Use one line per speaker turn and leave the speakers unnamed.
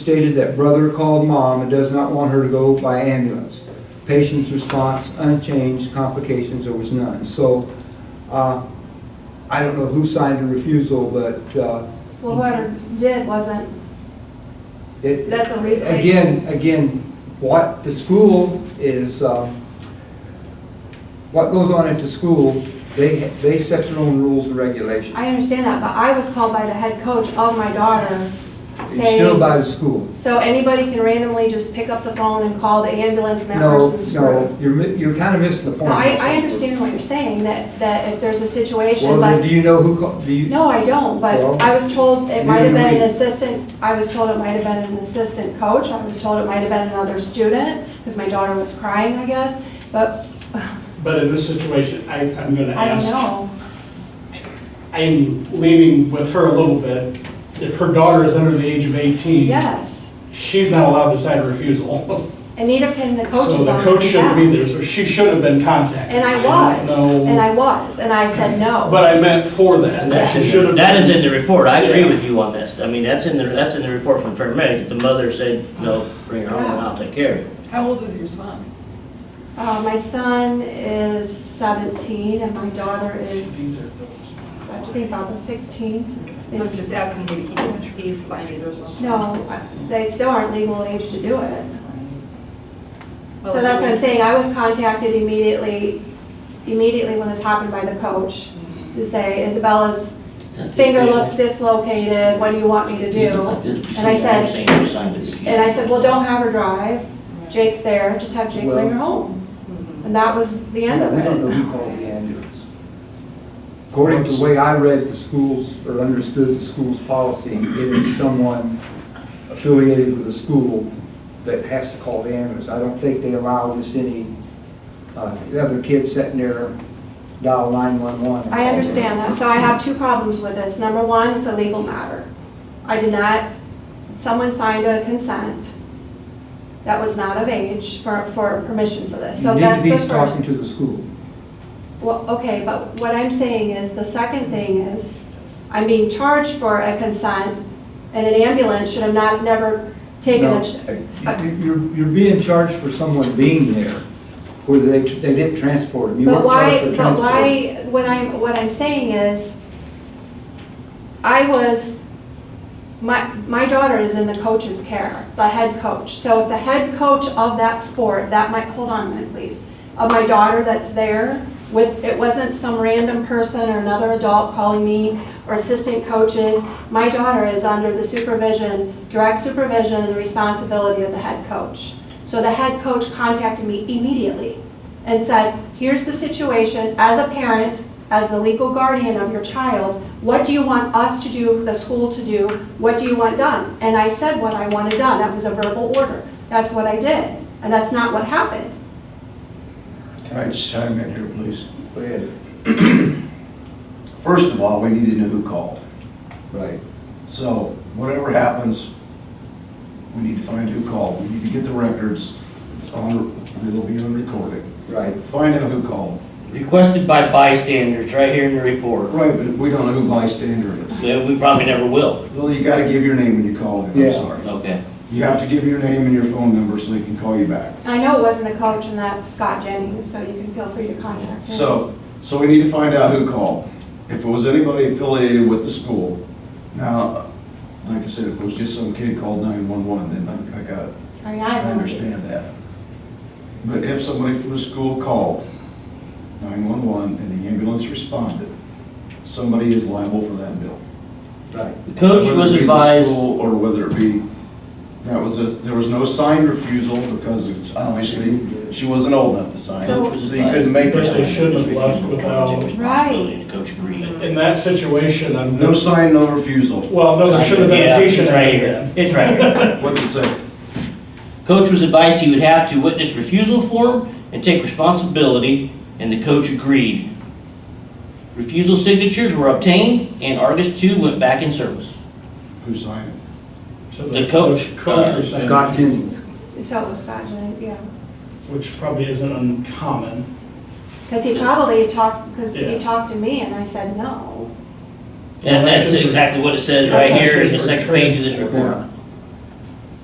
stated that brother called mom and does not want her to go by ambulance. Patient's response unchanged, complications, there was none. So, uh, I don't know who signed the refusal, but, uh,
Well, whoever did wasn't,
it.
that's a legal.
Again, again, what the school is, uh, what goes on at the school, they, they set their own rules and regulations.
I understand that, but I was called by the head coach of my daughter
It's still
saying,
by the school.
so anybody can randomly just pick up the phone and call the ambulance and that
No,
person's screwed.
no, you're, mi- you're kind of missing the
No,
point.
I, I understand what you're saying, that, that if there's a situation,
Well, then, do
but,
you know who, called? do you?
no, I don't,
Well,
but I was told it might
neither
have
do
been an
we.
assistant, I was told it might have been an assistant coach, I was told it might have been another student, because my daughter was crying, I guess, but
But in this situation, I, I'm gonna
I don't
ask.
know.
I'm leaning with her a little bit. If her daughter is under the age of eighteen.
Yes.
She's not allowed to sign a refusal.
And neither can the
So
coaches
the
on
coach
the
shouldn't be
back.
there, so she should have been contacted.
And I
don't
was,
know-
and I was, and I said no.
But I meant for that, that
That's
she
in
should
the-
have.
That is in the report, I agree
Yeah.
with you on this, I mean, that's in the, that's in the report from paramedic, the mother said, no, bring her home and I'll take care of it.
How old is your son?
Uh, my son is seventeen and my daughter is, I think about the sixteen.
I was just asking if he can, he signed it or something.
No, they still aren't legal age to do it. So that's what I'm saying, I was contacted immediately, immediately when this happened by the coach to say Isabella's finger looks dislocated, what do you want me to do? and I said- And I said, well, don't have her drive. Jake's there, just have Jake bring her home. And that was the
mm-hmm. We
end of
don't know
it.
who called the ambulance. According to the way I read the school's, or understood the school's policy, it is someone affiliated with the school that has to call the ambulance. I don't think they allow just any, uh, other kid sitting there dial nine-one-one.
I understand that, so I have two problems with this. Number one, it's a legal matter. I did not, someone signed a consent that was not of age for, for permission for this. So that's
You
the
need to be talking
first.
to the school.
Well, okay, but what I'm saying is, the second thing is, I'm being charged for a consent and an ambulance should have not, never taken
No.
a, ch- a
You- uh, You're, you're being charged for someone being there, whether they, they didn't transport him. You weren't
But
charged
why,
for
but
transport.
why, what I'm, what I'm saying is, I was, my, my daughter is in the coach's care, the head coach. So if the head coach of that sport, that might, hold on a minute, please, of my daughter that's there with, it wasn't some random person or another adult calling me or assistant coaches. My daughter is under the supervision, direct supervision and the responsibility of the head coach. So the head coach contacted me immediately and said, here's the situation, as a parent, as the legal guardian of your child, what do you want us to do, the school to do, what do you want done? And I said what I wanted done, that was a verbal order, that's what I did, and that's not what happened.
Can I just chime in here, please?
Go ahead.
First of all, we need to know who called.
Right.
So whatever happens, we need to find who called. We need to get the records. It's on, it'll be on recording.
Right.
Find out who called.
Requested by bystanders, right here in the report,
Right, but we don't know who bystander is.
so we probably never will,
Well, you gotta give your name when you call in,
Yeah.
I'm sorry.
okay.
You have to give your name and your phone number so they can call you back.
I know it wasn't a coach, and that's Scott Jennings, so you can feel free to contact him.
So, so we need to find out who called. If it was anybody affiliated with the school, now, like I said, if it was just some kid called 911, then I- I got it.
I mean,
I
I don't,
understand that. But if somebody from the school called 911 and the ambulance responded, somebody is liable for that bill.
Right.
The coach was
Whether it be the
advised,
school Or whether it be, that was, a there was no signed refusal because it's obviously she wasn't old enough to sign.
So-
So you couldn't make
But they
it.
should have left without,
responsibility, the coach agreed.
in that situation, I'm.
No sign, no refusal.
Well, no, there should have been
Yeah,
a patient
it's right
act
here.
then.
It's right here.
What's it say?
Coach was advised he would have to witness refusal form and take responsibility, and the coach agreed. Refusal signatures were obtained, and Argus two went back in service.
Who signed it?
So
The coach,
Coach
uh,
resigned,
Scott Jennings.
so it was Scott Jennings, yeah.
which probably isn't uncommon.
Because he probably talked, because he
Yeah.
talked to me, and I said no.
And
Well, that's
that's
just for-
exactly what it says right
That's
here in
just
the
for
second page of this
transport.
report.